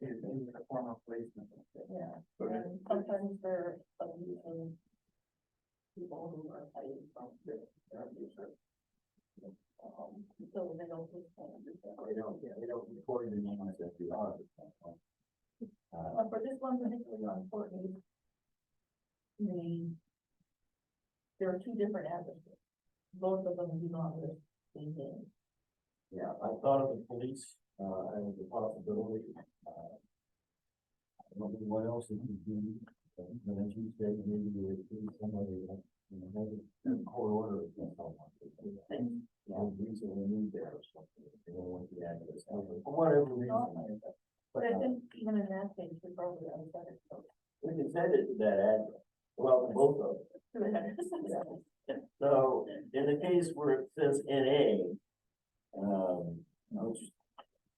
is in the form of placement. Yeah, Okay. and sometimes there are even people who are fighting from the, um, so they don't just kind of do that. They don't, yeah, they don't record the name as if you are. Uh, Uh, for this one particularly on Courtney, the, there are two different addresses. Both of them do not list the name. yeah, I thought of the police, uh, as a possibility, uh. I don't know what else it could be, but then she said maybe it would be somebody, like, you know, maybe a court order against someone. And- You know, recently moved there or something, they don't want the address, or for whatever reason. But I uh, think even in that case, we probably unsettled, so, We can send it to that address, well, to both of them. two addresses. So in the case where it says NA, um, which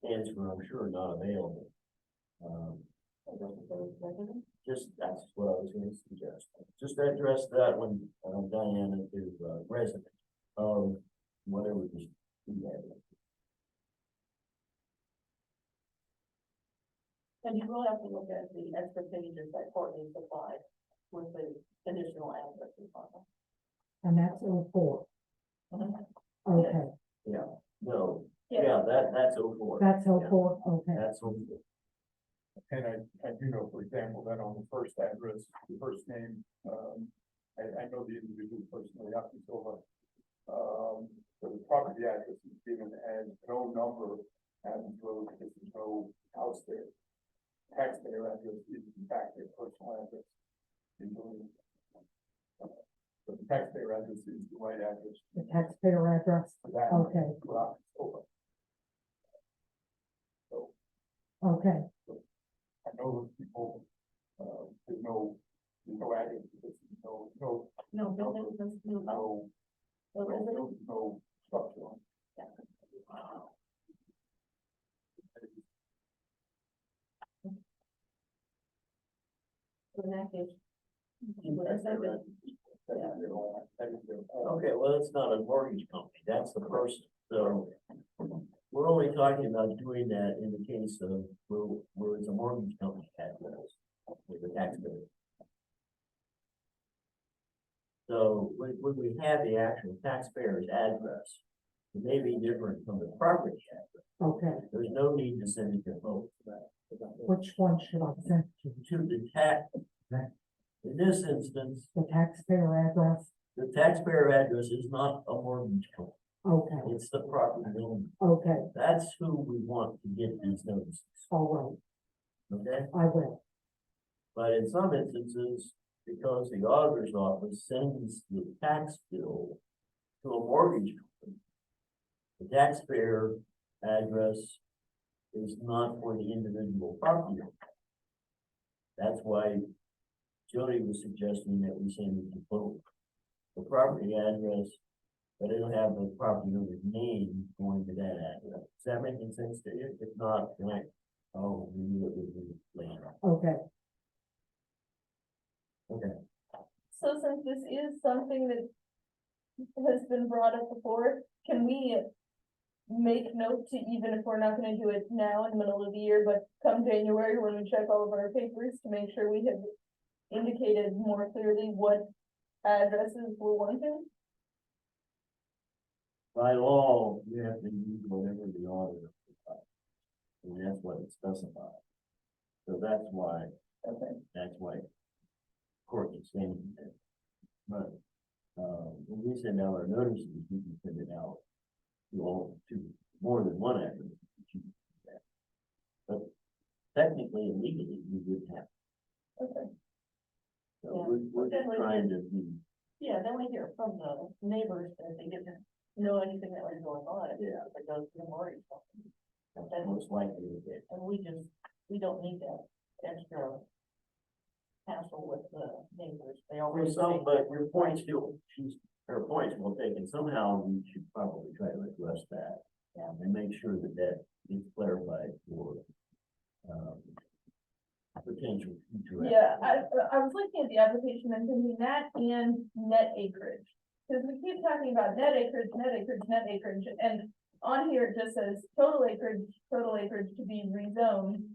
stands for, I'm sure, not available. Um, I don't know, Those residents, just, that's what I was gonna suggest, just address that one, um, Diana, to uh, resident of whatever this. And you will have to look at the extra pages that Courtney supplied with the additional addresses on them. And that's oh four, Mhm. okay, No, yeah, that, that's oh four, that's oh four, okay, that's oh four. And I, I do know, for example, that on the first address, the first name, um, I, I know the individual personally, up until, um, so the property address is given as no number, and road, there's no house there. Taxpayer address is in fact their personal address. in Boone. But the taxpayer address is the right address the taxpayer address, for that. okay, for October. okay, I know those people, uh, there's no, there's no address, there's no, no, No, buildings, no, no, no, no no, residents. no, no structure on. Yeah. So in that case, you would have said that, That is their own, that is their own. Okay, well, it's not a mortgage company, that's the person, so. We're only talking about doing that in the case of where, where it's a mortgage company that rules with the taxpayer. So when, when we have the actual taxpayer's address, it may be different from the property address. okay. There's no need to send it to both. To Which one should I send to, the tax, in this instance, the taxpayer address, the taxpayer address is not a mortgage company. okay, It's the property owner. okay, That's who we want to get these notices, all okay? right, I will, But in some instances, because the auditor's office sends the tax bill to a mortgage company, the taxpayer address is not for the individual property owner. That's why Jody was suggesting that we send it to both. The property address, but it'll have the property owner's name going to that address. Is that making sense to you? If not, then I, oh, we knew it would be later. okay, so since this is something that has been brought up before, can we make note to, even if we're not gonna do it now in the middle of the year, but come January, when we check all of our papers to make sure we have indicated more clearly what addresses we're wanting? By law, you have to use whatever the auditor. provides. And that's what it specifies. So that's why, Okay. that's why court is saying that. But, uh, when we send out our notices, we can send it out to all, to more than one address. if you do that. But technically and legally, we would have, Okay. so we're, we're just Yeah. trying to be, Yeah, then we hear from the neighbors that they didn't know anything that was going on, if yeah, it goes to the mortgage company. that's most likely the case. And we just, we don't need that extra hassle with the neighbors, they Well, already. some, but your point still, she's, her point's well taken, somehow we should probably try to address that. Yeah. And make sure that that is clarified for, um, potential future. Yeah, I, applicants. I was looking at the application and thinking that and net acreage. Cause we keep talking about net acreage, net acreage, net acreage, and on here it just says total acreage, total acreage to be rezoned.